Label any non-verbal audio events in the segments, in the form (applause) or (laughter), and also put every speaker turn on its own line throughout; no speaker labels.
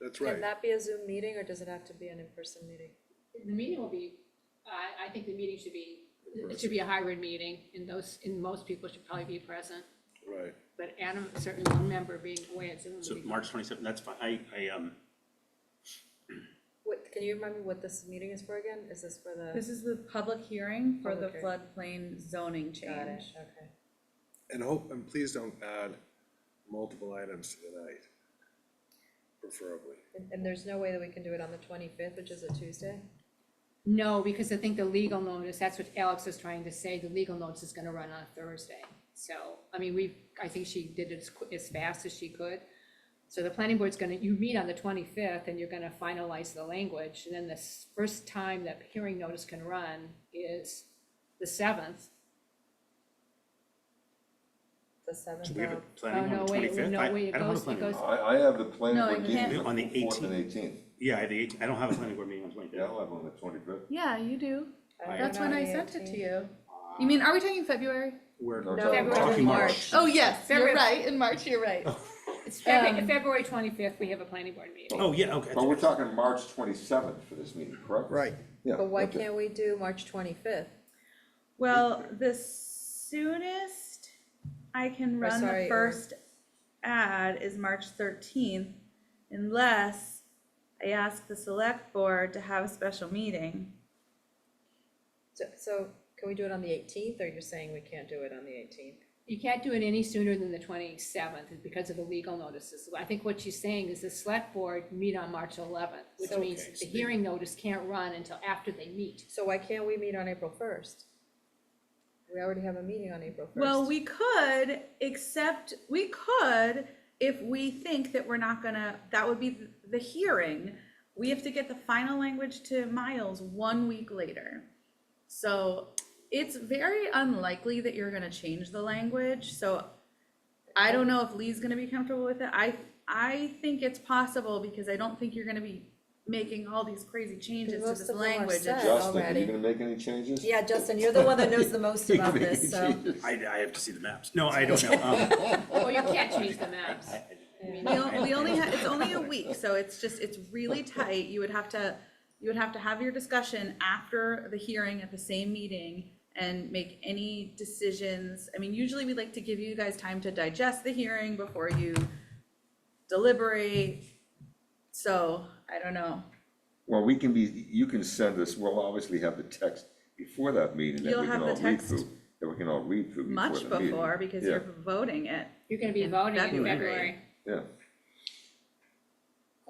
That's
Can
right.
that be a Zoom meeting or does it have to be an in-person meeting?
The meeting will be, I, I think the meeting should be, it should be a hybrid meeting, and those, and most people should probably be present.
Right.
But Adam, certainly one member being away at Zoom would
So
be-
March twenty-seventh, that's fine, I, I, um,
What, can you remind me what this meeting is for again? Is this for the?
This is the public hearing for the
Public
floodplain zoning
Got it,
change.
okay.
And hope, and please don't add multiple items to the night, preferably.
And, and there's no way that we can do it on the twenty-fifth, which is a Tuesday?
No, because I think the legal notice, that's what Alex was trying to say, the legal notice is gonna run on Thursday. So, I mean, we, I think she did it as, qui- as fast as she could. So the planning board's gonna, you meet on the twenty-fifth, and you're gonna finalize the language, and then the s- first time that hearing notice can run is the seventh.
The seventh
so we have a
of,
Oh,
planning
no,
on the
wait,
twenty-fifth?
no, wait, it
I don't have a
goes- it
planning.
goes-
board.
I, I have the planning
No,
board
you
meeting
can't.
On the
the fourth and eighteenth.
Yeah, I have the, eight- I don't have a planning board meeting on the
Yeah,
twenty-fifth.
I'll have one on the twenty-fifth.
Yeah, you do.
I don't
That's
know,
when I
the
sent it to
18th.
you. You mean, are we talking February?
We're
No,
February,
talking March.
Oh, yes, you're
February.
right. In March,
(laughs)
you're right.
It's February, February twenty-fifth, we have a planning board meeting.
Oh, yeah, okay.
But we're talking March twenty-seventh for this meeting, correct?
Right.
Yeah.
But why
okay.
can't we do March twenty-fifth?
Well, the soonest I can run the
sorry, or-
first ad is March thirteenth, unless I ask the select board to have a special meeting.
So, so can we do it on the eighteenth, or you're saying we can't do it on the eighteenth?
You can't do it any sooner than the twenty-seventh because of the legal notices. I think what she's saying is the select board meet on March eleventh, which
So-
means the hearing notice can't run until after they
(laughs)
meet.
So why can't we meet on April first? We already have a meeting on April first.
Well, we could, except, we could, if we think that we're not gonna, that would be th- the hearing. We have to get the final language to Miles one week later. So it's very unlikely that you're gonna change the language, so I don't know if Lee's gonna be comfortable with it. I, I think it's possible because I don't think you're gonna be making all these crazy changes to
Most
this
of them are
language.
set.
Justin, are
Already.
you gonna make any changes?
Yeah, Justin, you're the one that knows the most about
Make any
this, so.
changes?
I, I have to see the maps. No, I don't know. Um,
Well, Oh, you can't change the maps.
We on- we only, ha- it's only a week, so it's just, it's really tight, you would have to, you would have to have your discussion after the hearing at the same meeting and make any decisions, I mean, usually we like to give you guys time to digest the hearing before you deliberate, so, I don't know.
Well, we can be, you can send us, we'll obviously have the text before that meeting that
You'll
we can
have the
all read
text
through, that we can all read through before
Much
the meeting.
before, because
Yeah,
you're voting it,
You're gonna be
In
voting in
February.
February.
Yeah,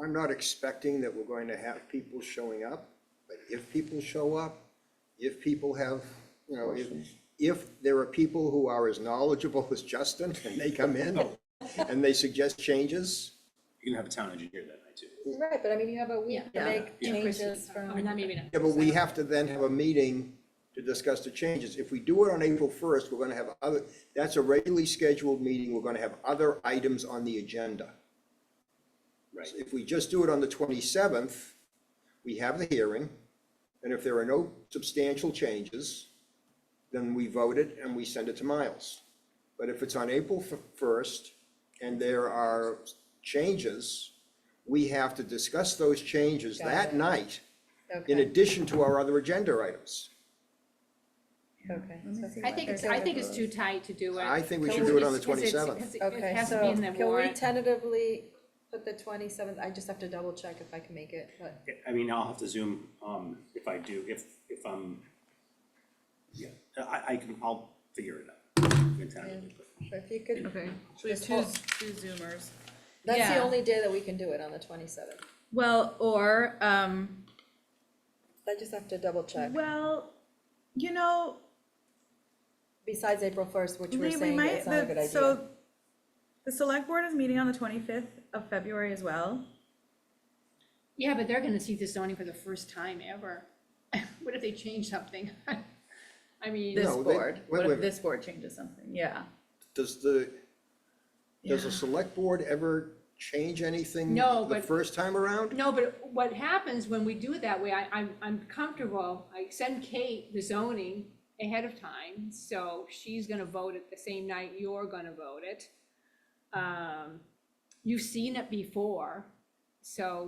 I'm not expecting that we're going to have people showing up, but if people show up, if people have, you know, if, if there are people who are as knowledgeable (laughs) as Justin and they come in and they suggest changes,
You can have a town engineer that night too.
Right, but I mean, you have a week to
Yeah.
make
In person.
changes
Or
from,
not, maybe not.
yeah, but we have to then have a meeting to discuss the changes. If we do it on April first, we're gonna have other, that's a regularly scheduled meeting, we're gonna have other items on the agenda.
Right.
If we just do it on the twenty-seventh, we have the hearing, and if there are no substantial changes, then we vote it and we send it to Miles. But if it's on April first and there are changes, we have to discuss those changes
Got it.
that night in
okay,
addition to our other agenda items.
okay. so-
I think it's, I think it's too tight to do it.
I think we
Because
should do it on the
it's- because it's-
27th.
because It it
Okay,
has to be
so
in the
can we
warrant.
tentatively put the twenty-seventh, I just have to double check if I can make it, but,
I mean, I'll have to zoom, um, if I do, if, if I'm, yeah, I, I can, I'll figure it out. We can tentatively put-
but if you could,
okay, so we have
Just
two,
hold-
z- two Zoomers.
that's the
Yeah.
only day that we can do it on the twenty-seventh.
Well, or, um,
I just have to double check,
well, you know,
besides April first, which we're
Lee, we
saying
might,
it's not a good
the,
idea.
so, the select board is meeting on the twenty-fifth of February as well.
Yeah, but they're gonna see the zoning for the first time ever. (laughs) What if they change something? (laughs) I mean.
This
No, they-
board,
wait,
what if
wait.
this board changes something, yeah.
Does the, does the select board ever change anything
No,
the
but-
first time around?
No, but what happens when we do it that way, I, I'm, I'm comfortable, I send Kate the zoning ahead of time, so she's gonna vote it the same night you're gonna vote it. Um, you've seen it before, so